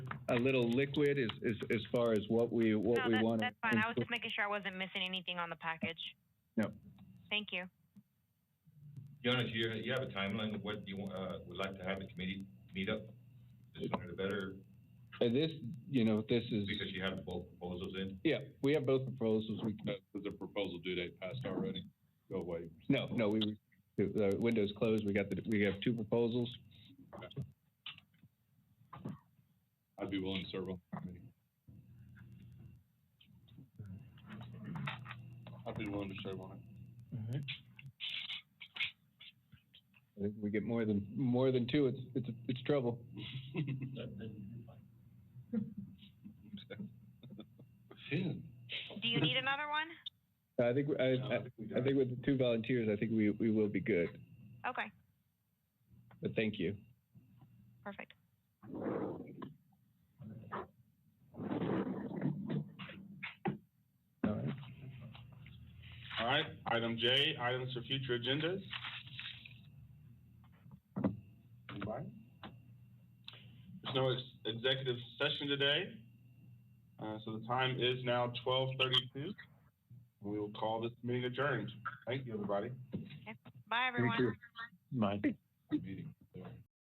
a little liquid as, as, as far as what we, what No, we that- want. That's fine. I was just making sure I wasn't missing anything on the package. No. Thank you. Your Honor, do you, you have a timeline of what you, want, uh, would like to have the committee meet up? The sooner the better, And this, you know, this is, because you have both proposals in. yeah, we have both proposals. We, Is the proposal due date passed already? Go away. no, no, we, the window's closed. We got the, we have two proposals. I'd be willing to serve on the committee. I'd be willing to serve on it. I think we get more than, more than two, it's, it's, it's trouble. Ten. Do you need another one? I think, I, I, I think with the two volunteers, I think we, we will be good, Okay, but thank you. perfect. All right. All right, item J, items for future agendas. Anybody? There's no ex- executive session today, uh, so the time is now twelve thirty-two. We will call this meeting adjourned. Thank you, everybody. Bye, everyone. Mike. Meeting.